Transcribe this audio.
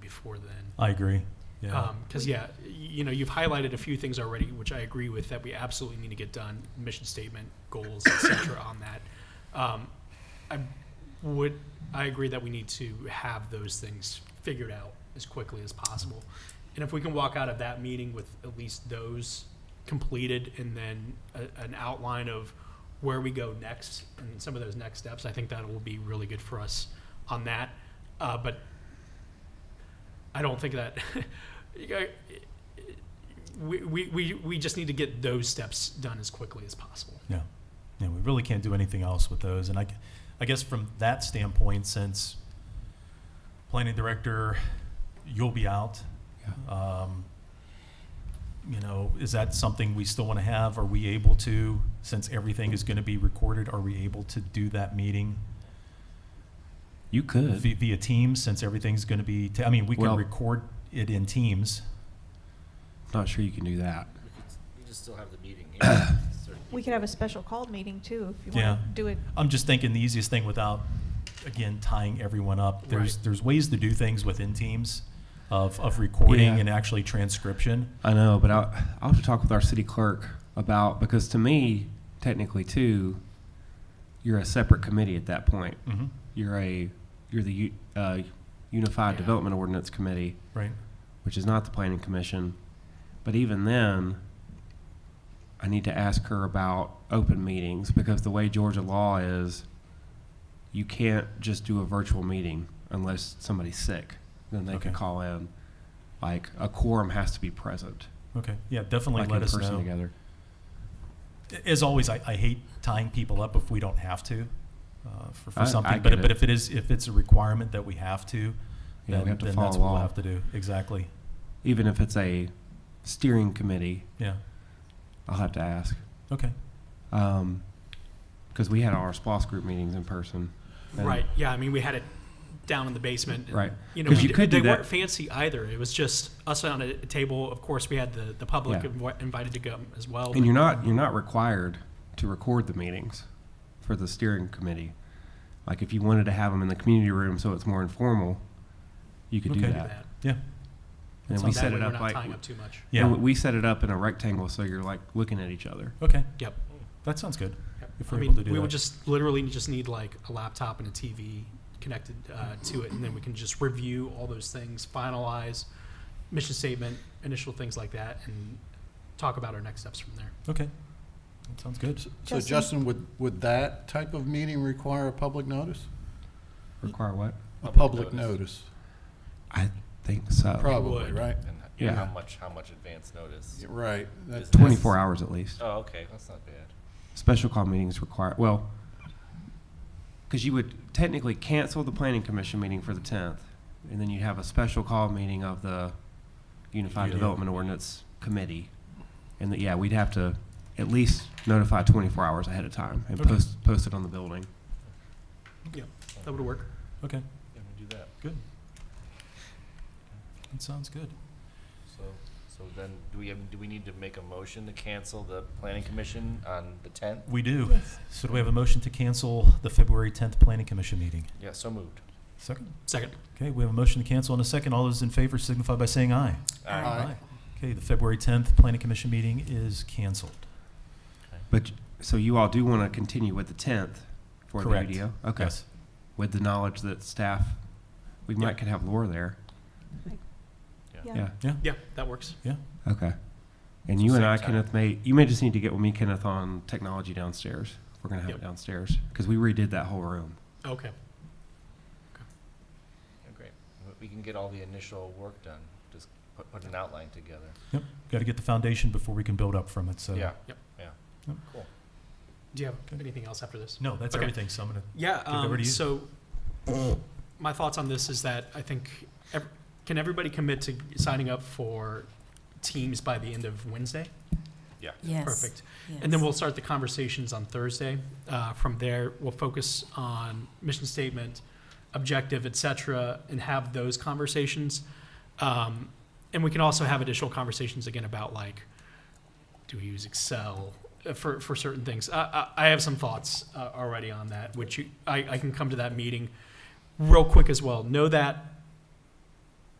before then. I agree. Yeah. Because, yeah, y- you know, you've highlighted a few things already, which I agree with, that we absolutely need to get done, mission statement, goals, et cetera, on that. Um, I would, I agree that we need to have those things figured out as quickly as possible. And if we can walk out of that meeting with at least those completed and then a, an outline of where we go next and some of those next steps, I think that will be really good for us on that. Uh, but I don't think that you got- we, we, we, we just need to get those steps done as quickly as possible. Yeah, yeah, we really can't do anything else with those. And I, gu- I guess from that standpoint, since planning director, you'll be out. Um, you know, is that something we still want to have? Are we able to, since everything is going to be recorded, are we able to do that meeting You could. via, via Teams? Since everything's going to be, ta- I mean, we can Well- record it in Teams. Not sure you can do that. We could s- We just still have the meeting here. Certain We could people- have a special call meeting too, if you Yeah. want to do it. I'm just thinking the easiest thing without, again, tying everyone up. There's Right. there's ways to do things within teams, of of recording Yeah. and actually transcription. I know, but I, I'll have to talk with our city clerk about, because to me, technically too, you're a separate committee at that point. Mm-hmm. You're a, you're the U- uh, Unified Yeah. Development Ordinance Committee, Right. which is not the Planning Commission. But even then, I need to ask her about open meetings because the way Georgia law is, you can't just do a virtual meeting unless somebody's sick. Then they Okay. can call in. Like a quorum has to be present. Okay. Yeah. Definitely like let in us person know. together. As always, I, I hate tying people up if we don't have to, uh, for, for I- something. I but get but it. if it is if it's a requirement that we have to, Yeah, then, we have to then that's follow what we'll law, have to do. Exactly. even if it's a steering committee. Yeah. I'll have to ask Okay. because we had our SPOS group meetings in person. and- Right. Yeah. I mean, we had it down in the basement. and, Right. You know, 'Cause you we- could they do that. weren't fancy either. It was just us on a table. Of course, we had the, the public Yeah. invi- invited to come as well. And you're not you're not required to record the meetings for the steering committee. Like if you wanted to have them in the community room so it's more informal, you could Okay. do do that. that. Yeah. And That we sounds set way it we're up not like tying up too much. Yeah. and we set it up in a rectangle so you're like looking at each other. Okay. Yep. That sounds good. yep. If I we're mean, able to do we that. would just literally just need like a laptop and a TV connected uh, to it, and then we can just review all those things, finalize mission statement, initial things like that, and talk about our next steps from there. Okay. That sounds good. So Justin? Justin, would, would that type of meeting require a public notice? Require what? A Public public notice. notice, I think so. would. probably, right? And h- Yeah. How much, how much advance notice? Yeah, Right. That- Is that- Twenty-four hours at least. Oh, okay, that's not bad. Special call meetings require, well, because you would technically cancel the planning commission meeting for the tenth, and then you'd have a special call meeting of the Unified Yeah. Development Ordinance Committee. And that, yeah, we'd have to at least notify twenty-four hours ahead of time and Okay. post, post it on the building. That would work. Okay. Yeah, we do that. That sounds good. So, so then, do we, have- do we need to make a motion to cancel the planning commission on the tenth? We do. Yes. So do we have a motion to cancel the February 10th Planning Commission meeting? Yeah, so moved. Second. Second. Okay, we have a motion to cancel in a second. All those in favor signify by saying aye. Aye. Aye. Okay, the February 10th Planning Commission meeting is canceled. But, so you all do want to continue with the tenth for the Correct. UDO? Okay, Yes. with the knowledge that staff, we Yeah. might could have Laura there, yeah. Yeah, that works. Okay. And So you and same I, time. Kenneth, may, you may just need to get with me, Kenneth, on technology downstairs. We're gonna have Yep. it downstairs, because we redid that whole room. Okay. Yeah, Great. We- We can get all the initial work done, just put, put an outline together. Got to get the foundation before we can build up from it, so. Yeah, Yep. yeah. Yep. Cool. Do you have Okay. anything else after this? No, that's Okay. everything, so I'm going to, Yeah, it over um, to you. so my thoughts on this is that I think, ev- can everybody commit to signing up for teams by the end of Wednesday? Yeah. Yes. Perfect. And then we'll start the conversations on Thursday. Uh, From there, we'll focus on mission statement, objective, et cetera, and have those conversations. Um, And we can also have additional conversations again about like, do we use Excel uh, for, for certain things? I, I, I have some thoughts uh, already on that, which you, I, I can come to that meeting real quick as well. Know that